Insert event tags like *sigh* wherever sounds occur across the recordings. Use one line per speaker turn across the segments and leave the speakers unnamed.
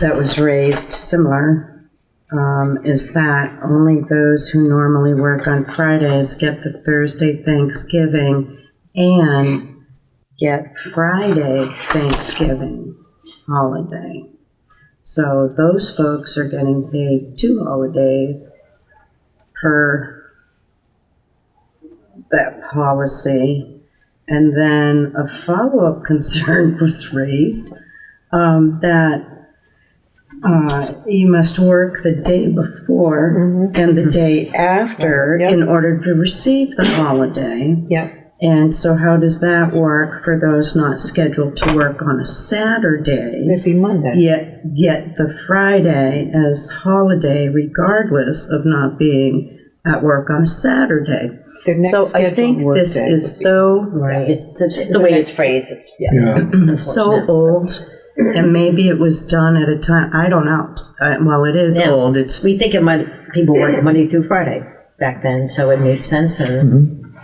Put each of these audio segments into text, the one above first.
that was raised, similar, um, is that only those who normally work on Fridays get the Thursday Thanksgiving and get Friday Thanksgiving holiday. So those folks are getting paid two holidays per that policy. And then a follow-up *laughs* concern was raised um, that uh, you must work the day before
Mm-hmm.
and the day after in order to receive the holiday.
Yep.
And so how does that work for those not scheduled to work on a Saturday?
It'd be Monday.
Yet get the Friday as holiday regardless of not being at work on a Saturday.
Their next
So I
scheduled
think
work
this
day
is so,
Right, it's it's just the way it's phrased, it's, yeah.
Yeah,
so old. And maybe it was done at a time, I don't know. Uh, Well, it is
Yeah.
old, it's,
We think of Mon, people worked Monday through Friday back then, so it made sense and,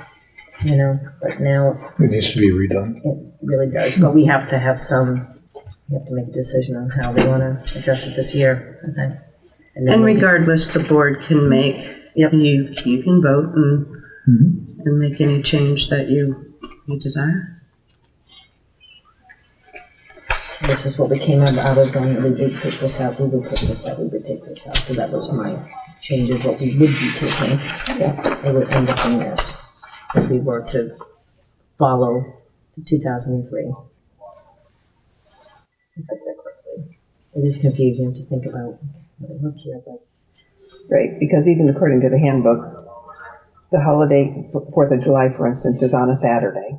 you know, but now
it needs to be redone.
it really does, but we have to have some, we have to make a decision on how we wanna address it this year, I think. then
and
we-
regardless, the board can make, you,
Yep.
you can vote and, and make any change that you, you desire.
This is what we came up, I was going, we would take this out, we would take this out, we would take this out, so that was my change of what we would be taking. It would end up in this, if we were to follow two thousand and three. It is confusing to think about, what it look here, but
Right, because even according to the handbook, the holiday, Fourth of July, for instance, is on a Saturday.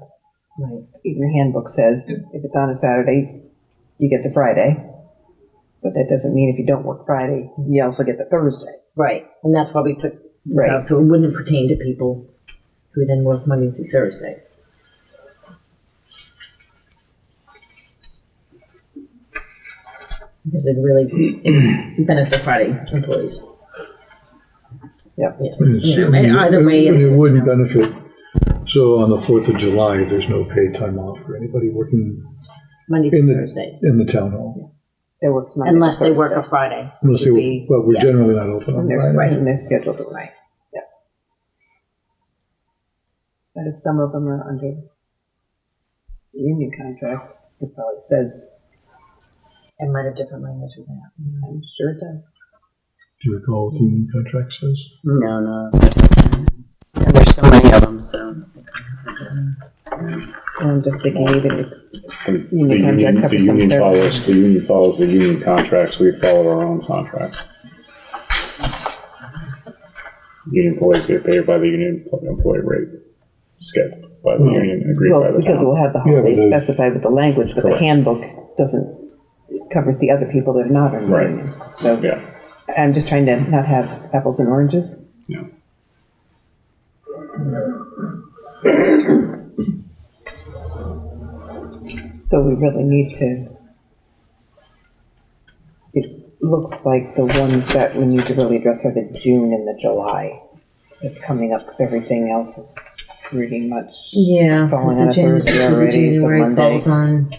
Right.
Even the handbook says if it's on a Saturday, you get the Friday. But that doesn't mean if you don't work Friday, you also get the Thursday.
Right, and that's why we took this
Right.
out, so it wouldn't pertain to people who then work Monday through Thursday. Because it really *clears throat* benefit Friday employees.
Yep.
Yeah,
It's-
you know, and Either way,
it-
it's,
It
you
wouldn't
know,
benefit. So on the Fourth of July, there's no paid time off for anybody working
Monday
in
through
the,
Thursday,
in the town hall.
They work Monday. to
unless they work a
Thursday.
Friday.
Unless
would
they,
be-
well, we're
yeah.
generally not open on
And they're,
Friday.
and they're scheduled to work. Yep. But if some of them are under the union contract, it probably says, Mm-hmm.
It might have different language with that.
I'm sure it does.
Do you recall what the union contract says?
No, no. And there's so many of them, so.
I'm just thinking even if
The
You need
union-
contract cover
the
some
union
third.
follows, the union follows the union contracts, we follow our own contracts. Union employees get paid by the union employee rate, scheduled by the union, agreed by
Well,
the
because
town.
we'll have the
Yeah, but
holiday
the-
specified with the language, but the
Correct.
handbook doesn't, it covers the other people that are not in the
Right.
union. So
Yeah,
I'm just trying to not have apples and oranges.
yeah.
So we really need to. It looks like the ones that we need to really address are the June and the July. It's coming up because everything else is pretty much.
Yeah.
Falling on a Thursday already, it's a Monday.
Falls on,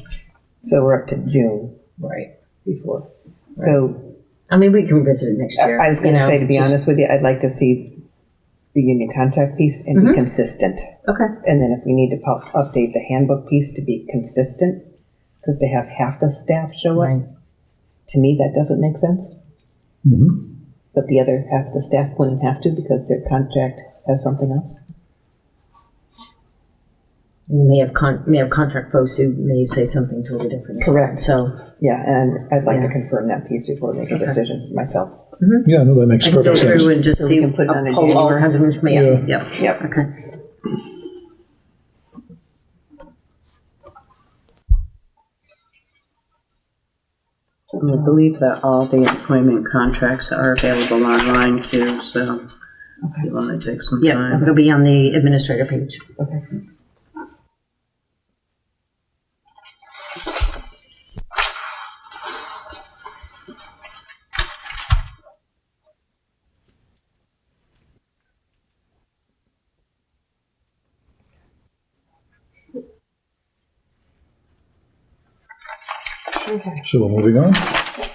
So we're up to June
right.
before. So
I mean, we can revisit it next
I-
year.
I was
you
gonna
know,
say, to be
just-
honest with you, I'd like to see the union contract piece and
Mm-hmm.
be consistent.
Okay.
And then if we need to pu- update the handbook piece to be consistent, because to have half the staff show up,
Right.
to me, that doesn't make sense. But the other half of the staff wouldn't have to because their contract has something else.
You may have con, may have contract folks who may say something totally different.
Correct.
So,
Yeah, and I'd like to
Yeah.
confirm that piece before we make a decision myself.
Yeah, no, that makes
I can go
perfect sense.
through and just
So we
see,
can put it on in
pull all
January.
kinds of information, yep,
Yep.
okay.
And I believe that all the employment contracts are available online too, so if you want to take some
Yeah,
time.
it'll be on the administrator page.
Okay.
So moving on.